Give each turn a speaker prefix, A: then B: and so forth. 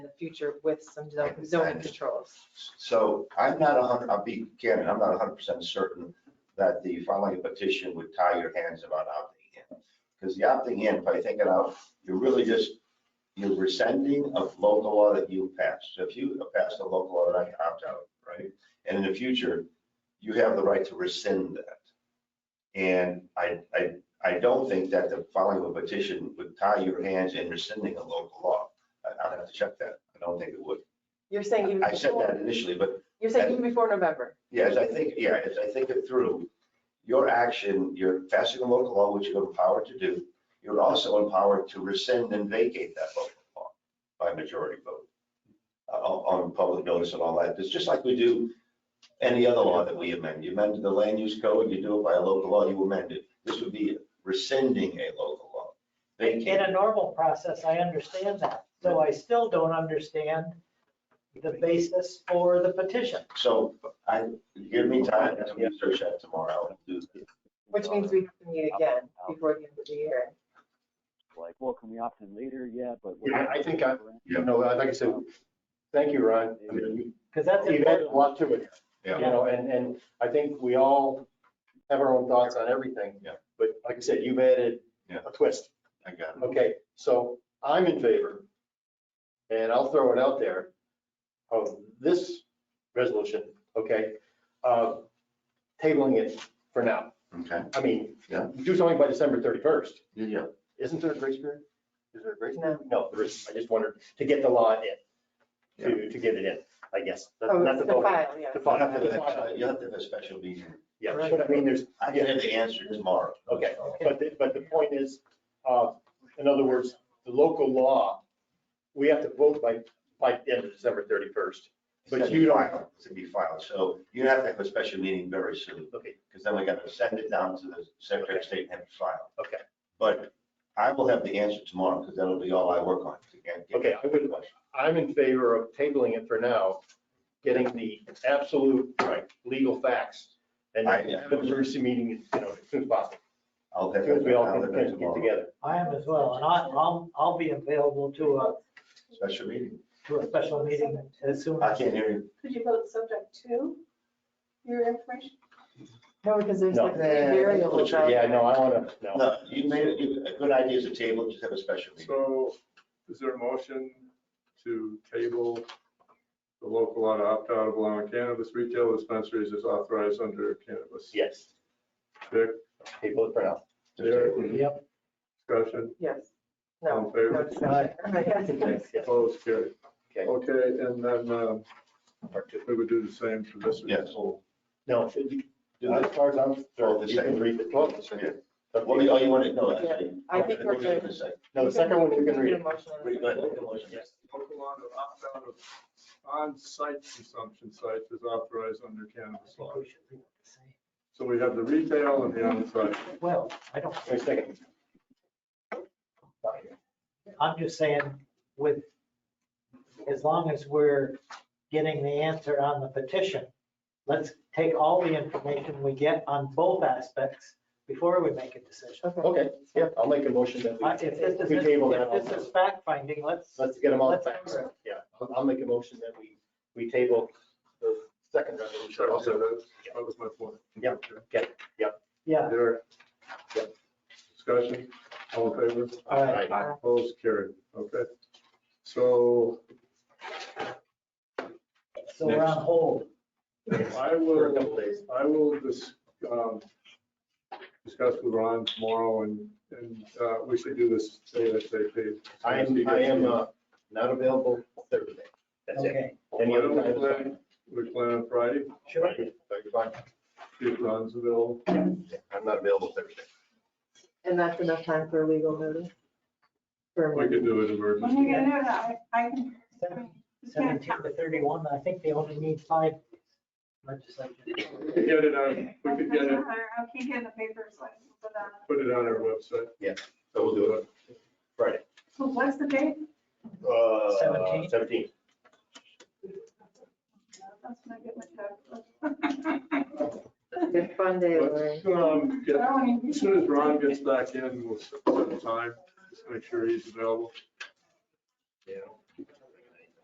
A: the future with some zo- zoning controls.
B: So I'm not a hundred, I'll be candid, I'm not a hundred percent certain that the filing a petition would tie your hands about opting in. Because the opting in, by thinking out, you're really just, you're rescinding a local law that you passed. So if you passed a local law, then I can opt out, right? And in the future, you have the right to rescind that. And I, I, I don't think that the filing of a petition would tie your hands in rescinding a local law. I- I'd have to check that. I don't think it would.
A: You're saying even
B: I said
A: before,
B: that initially, but
A: you're saying even before November.
B: Yes, I think, yeah, as I think it through, your action, you're passing a local law, which you're empowered to do. You're also empowered to rescind and vacate that local law by majority vote uh, on, on public notice and all that. It's just like we do any other law that we amend. You amend the land use code, you do it by a local law, you amend it. This would be rescinding a local law.
C: In
B: Vacate,
C: a normal process, I understand that. So I still don't understand the basis for the petition.
B: so I, give me time to research that tomorrow. I'll do that.
A: Which means we have to
D: Oh,
A: meet again before the end of the year.
E: like, well, can we opt in later? Yeah, but.
D: Yeah, I think I- You know, like I said, thank you, Ron. I mean, you-
C: Because that's.
D: you've added a
C: important.
D: lot to it.
B: Yeah.
D: You know, and, and I think we all have our own thoughts on everything.
B: Yeah.
D: But like I said, you've added
B: Yeah.
D: a twist.
B: I got it.
D: Okay, so I'm in favor, and I'll throw it out there, of this resolution, okay? uh, Tabling it for now.
B: Okay,
D: I mean,
B: Yeah.
D: do something by December 31st.
B: yeah.
D: Isn't there a grace period? Is there a grace period? No, there isn't. I just wondered to get the law in, to, to get it in, I guess. Not-
A: Oh,
D: not
A: to
D: the vote.
A: file, yeah.
D: The file.
B: You'll have to
D: The
B: have
D: file,
B: a- you'll have to have a special meeting.
D: Yeah, but I mean, there's,
B: I can have the answer tomorrow.
D: okay,
C: Okay.
D: but, the- but the point is, uh, in other words, the local law, we have to vote by, by the end of December 31st. But
B: It's gonna be
D: you don't-
B: filed. It's gonna be filed. So you have to have a special meeting very soon,
D: Okay,
B: because then we gotta send it down to the Secretary of State and have it filed.
D: Okay.
B: But I will have the answer tomorrow, because that'll be all I work on. to get- get
D: Okay, I would-
B: the question.
D: I'm in favor of tabling it for now, getting the absolute right, legal facts. And
B: I-
D: have an emergency meeting, you know, as soon as possible,
B: I'll
D: as
B: have.
D: soon as we all
B: I'll
D: can
B: have
D: can
B: it
D: get
B: tomorrow.
D: together.
C: I am as well, and I, I'll, I'll be available to
F: uh,
C: a,
B: Special meeting.
C: to a special meeting as soon
B: I
C: as.
B: can't hear you.
F: Could you vote subject to your information?
A: No, because there's
D: No.
A: like variables out
D: Yeah,
A: there.
D: no, I want to, no.
B: No, you made it, you- a good idea is a table, just have a special meeting.
G: So is there a motion to table the local law to opt out of allowing cannabis retail dispensaries as authorized under cannabis?
D: Yes,
G: Dick,
D: table it for now.
G: Derek,
C: Yep,
G: discussion,
A: Yes. No.
D: Um,
G: All in
A: no
G: favor?
A: discussion. Yes.
D: Yes,
G: opposed, carried.
D: Okay.
G: Okay, and then um,
D: part two.
G: we would do the same for this.
B: Yes.
D: No, should you, as far as I'm,
B: Well, the
D: you can
B: second-
D: read the twelve.
B: Yeah. What do you, oh, you want to, no, actually.
A: I think we're
B: gonna
A: good.
B: say.
D: No, the second one you can read.
A: Need a motion.
B: Pretty good. Make a motion.
G: Local law to opt out of on-site consumption sites is authorized under cannabis law. So we have the retail and the on-site.
C: well, I don't,
D: Wait a second.
C: I'm just saying with, as long as we're getting the answer on the petition, let's take all the information we get on both aspects before we make a decision.
A: Okay.
D: Okay, yeah, I'll make a motion that
C: I- If this
D: we,
C: is,
D: we table that.
C: if this is fact finding, let's,
D: Let's get them all
C: Let's-
D: back. Yeah, I'll, I'll make a motion that we, we table the second resolution also.
G: That was my point.
D: Yep.
G: Okay.
C: yeah,
G: Derek?
D: Yep.
G: Discussion, all in favor?
C: all right.
D: Aye.
G: Opposed, carried, okay. So
C: So we're on hold.
G: I
D: For a
G: will,
D: couple days.
G: I will dis- um, discuss with Ron tomorrow and, and uh, we should do this ASAP.
D: I am, I am, uh, not available Thursday. That's it.
C: Okay.
D: Any
G: Why
D: other
G: don't we
D: time?
G: plan, we plan on Friday,
C: Sure.
D: Fine.
G: if Ron's available.
D: I'm not available Thursday.
A: And that's enough time for a legal notice? For
G: We
A: me.
G: can do it
F: When
G: emergency.
F: are you gonna do that? I, I can. It's gonna
C: Seventeen
F: count.
C: to thirty-one, I think they only need five legislators.
G: We could Get it on, we could get it,
F: I keep getting the papers, like, but, uh,
G: put it on our website.
D: So we'll do it Friday.
F: So what's the date?
D: Uh,
C: Seventeen.
D: Seventeen.
F: That's when I get my check.
A: Good fun day, Lori.
G: Let's, um,
F: I
G: get-
F: don't even-
G: As soon as Ron gets back in, we'll set the time, just make sure he's available.
D: Yeah.